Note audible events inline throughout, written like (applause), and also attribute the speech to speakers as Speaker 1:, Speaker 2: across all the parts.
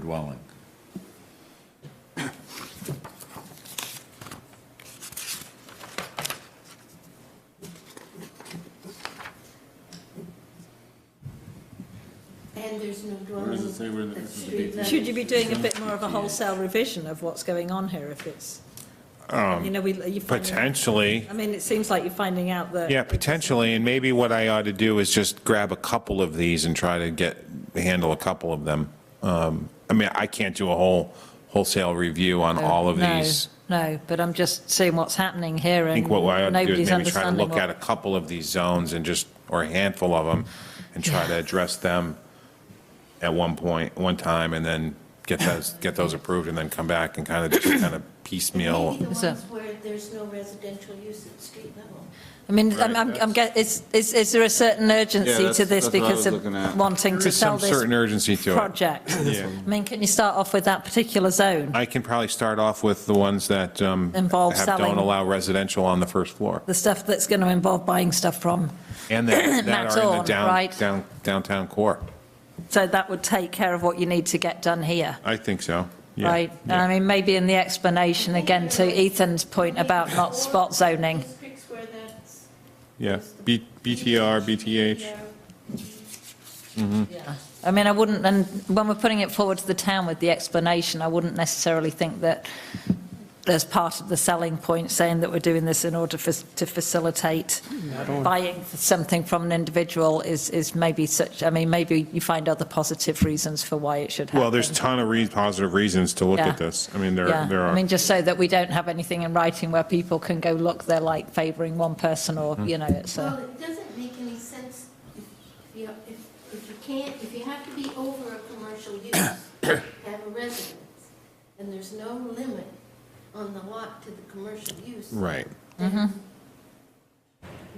Speaker 1: dwelling.
Speaker 2: And there's no dwelling.
Speaker 3: Where does it say where the-
Speaker 2: at
Speaker 3: it's a
Speaker 2: street
Speaker 3: big-
Speaker 2: level.
Speaker 4: Should you be doing a bit more of a wholesale revision of what's going on here if it's,
Speaker 5: Um,
Speaker 4: you know, we, you finding,
Speaker 5: Potentially,
Speaker 4: I mean, it seems like you're finding out that.
Speaker 5: yeah, potentially, and maybe what I ought to do is just grab a couple of these and try to get, handle a couple of them. Um, I mean, I can't do a whole wholesale review on all of
Speaker 4: No,
Speaker 5: these.
Speaker 4: No, but I'm just seeing what's happening here
Speaker 5: I
Speaker 4: and
Speaker 5: think what I ought to do is
Speaker 4: nobody's
Speaker 5: maybe try to
Speaker 4: understanding
Speaker 5: look at a
Speaker 4: what.
Speaker 5: couple of these zones and just, or a handful of them, and try to address them at one point, one time, and then get those, get those approved, and then come back and kind of, just kind of piecemeal.
Speaker 2: Maybe the
Speaker 4: So-
Speaker 2: ones where there's no residential use at street level.
Speaker 4: I mean, I'm, I'm, I'm get, is, is, is there a certain
Speaker 3: Yeah,
Speaker 4: urgency
Speaker 3: that's-
Speaker 4: to this
Speaker 3: that's what I
Speaker 4: because
Speaker 3: was looking at.
Speaker 4: of wanting
Speaker 5: There
Speaker 4: to
Speaker 5: is
Speaker 4: sell
Speaker 5: some
Speaker 4: this?
Speaker 5: certain urgency to it.
Speaker 4: project. I mean, can you start off with that particular zone,
Speaker 5: I can probably start off with the ones that um,
Speaker 4: Involve
Speaker 5: have- don't
Speaker 4: selling.
Speaker 5: allow residential on the first floor.
Speaker 4: the stuff that's going to involve buying stuff from?
Speaker 5: And
Speaker 4: (coughs)
Speaker 5: that that are in the
Speaker 4: Max Orn,
Speaker 5: down-
Speaker 4: right.
Speaker 5: down- downtown core.
Speaker 4: So that would take care of what you need to get done here,
Speaker 5: I think so. Yeah.
Speaker 4: right? And I mean, maybe in the explanation, again, to Ethan's point about not spot zoning,
Speaker 2: Districts where that's.
Speaker 5: Yeah, B- BTR, BTH. Mm.
Speaker 4: I mean, I wouldn't, and when we're putting it forward to the town with the explanation, I wouldn't necessarily think that as part of the selling point, saying that we're doing this in order for, to facilitate buying something from an individual is, is maybe such, I mean, maybe you find other positive reasons for why it should happen.
Speaker 5: Well, there's a ton of re- positive reasons to look
Speaker 4: Yeah.
Speaker 5: at this. I mean, there
Speaker 4: Yeah,
Speaker 5: there
Speaker 4: I
Speaker 5: are.
Speaker 4: mean, just so that we don't have anything in writing where people can go, look, they're like favouring one person or,
Speaker 5: Mm-hmm.
Speaker 4: you know, it's
Speaker 2: Well,
Speaker 4: a,
Speaker 2: it doesn't make any sense if you, if, if you can't, if you have to be over a commercial use, have a residence, and there's no limit on the lot to the commercial use.
Speaker 5: Right.
Speaker 2: then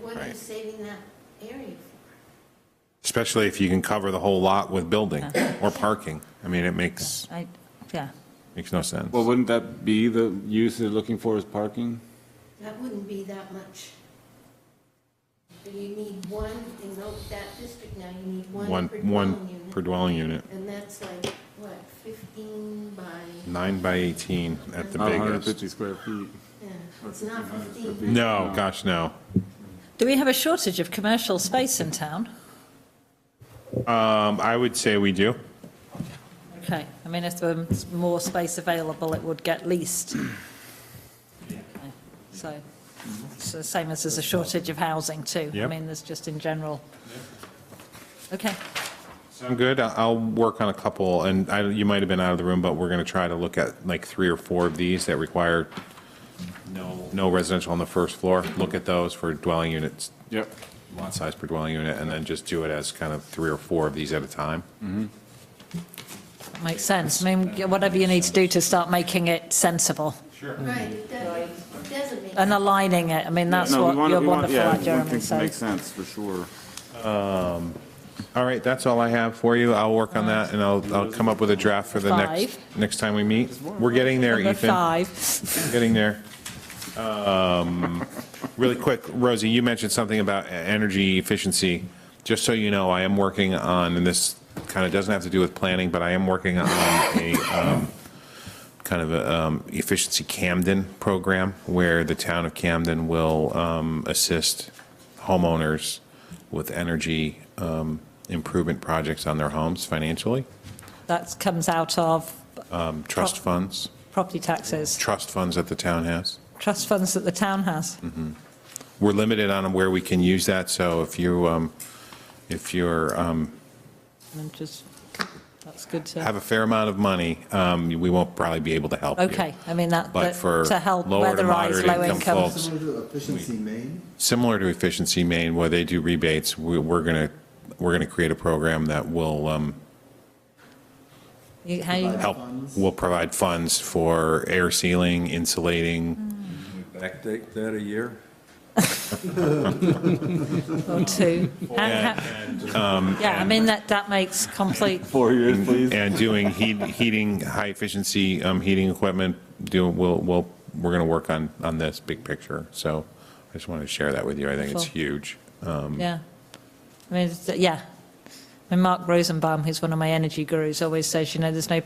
Speaker 2: What are you
Speaker 5: Right.
Speaker 2: saving that area for?
Speaker 5: Especially if you can cover the whole lot with building or parking. I mean, it makes,
Speaker 4: I, yeah.
Speaker 5: makes no sense.
Speaker 3: Well, wouldn't that be the use they're looking for is parking?
Speaker 2: That wouldn't be that much. So You need one, in tho- that district now, you need
Speaker 5: One,
Speaker 2: one per dwelling
Speaker 5: one per
Speaker 2: unit.
Speaker 5: dwelling unit,
Speaker 2: And that's like, what, 15 by,
Speaker 5: nine by 18 at the
Speaker 3: Not 150
Speaker 5: biggest.
Speaker 3: square feet.
Speaker 2: yeah, it's not 15.
Speaker 5: No, gosh, no.
Speaker 4: Do we have a shortage of commercial space in town?
Speaker 5: Um, I would say we do.
Speaker 4: Okay, I mean, if there was more space available, it would get leased. So, it's the same as there's a shortage of housing too. I
Speaker 5: Yep.
Speaker 4: mean, there's just in general. Okay,
Speaker 5: Sound good? I- I'll work on a couple, and I, you might have been out of the room, but we're going to try to look at like three or four of these that require no, no residential on the first floor. Look at those for dwelling units,
Speaker 3: Yep.
Speaker 5: lot size per dwelling unit, and then just do it as kind of three or four of these at a time.
Speaker 4: that makes sense. I mean, whatever you need to do to start making it sensible
Speaker 2: Right, it doesn't, it doesn't make.
Speaker 4: and aligning it, I mean, that's
Speaker 3: No, we
Speaker 4: what
Speaker 3: wanna-
Speaker 4: you're
Speaker 3: we want-
Speaker 4: wonderful
Speaker 3: yeah,
Speaker 4: at,
Speaker 3: we want
Speaker 4: Jeremy,
Speaker 3: things to
Speaker 4: so.
Speaker 3: Make sense, for sure.
Speaker 5: All right, that's all I have for you. I'll work on that, and I'll, I'll come up with a draft for the next,
Speaker 4: Five.
Speaker 5: next time we meet. We're getting there,
Speaker 4: Number
Speaker 5: Ethan.
Speaker 4: five,
Speaker 5: Getting there. Um, Really quick, Rosie, you mentioned something about e- energy efficiency. Just so you know, I am working on, and this kind of doesn't have to do with planning, but I am working on a um, kind of a um, efficiency Camden program where the town of Camden will um, assist homeowners with energy um, improvement projects on their homes financially,
Speaker 4: that comes out of
Speaker 5: um, trust funds,
Speaker 4: property taxes,
Speaker 5: trust funds that the town has.
Speaker 4: trust funds that the town has.
Speaker 5: we're limited on where we can use that, so if you, um, if you're, um,
Speaker 4: And just, that's good to.
Speaker 5: have a fair amount of money, um, we won't probably be able to help you.
Speaker 4: Okay, I mean, that,
Speaker 5: But
Speaker 4: that-
Speaker 5: for
Speaker 4: to help
Speaker 5: lower to
Speaker 4: weatherize
Speaker 5: moderate
Speaker 4: low
Speaker 5: income
Speaker 4: income.
Speaker 5: folks,
Speaker 6: Similar to efficiency main,
Speaker 5: similar to Efficiency Maine, where they do rebates, we- we're going to, we're going to create a program that will um,
Speaker 4: You- how you-
Speaker 5: help, will provide funds for air sealing, insulating,
Speaker 1: Backdate that a year?
Speaker 4: Or two. How- how-
Speaker 5: Um,
Speaker 4: Yeah, I mean, that, that makes complete,
Speaker 3: Four (laughs) years, please.
Speaker 5: and doing heat, heating, high-efficiency um, heating equipment, do, we'll, we'll, we're going to work on, on this big picture. So I just wanted to share that with you. I think it's
Speaker 4: Cool.
Speaker 5: huge. Um,
Speaker 4: yeah. I mean, it's- yeah. And Mark Rosenbaum, who's one of my energy gurus, always says, you know, there's no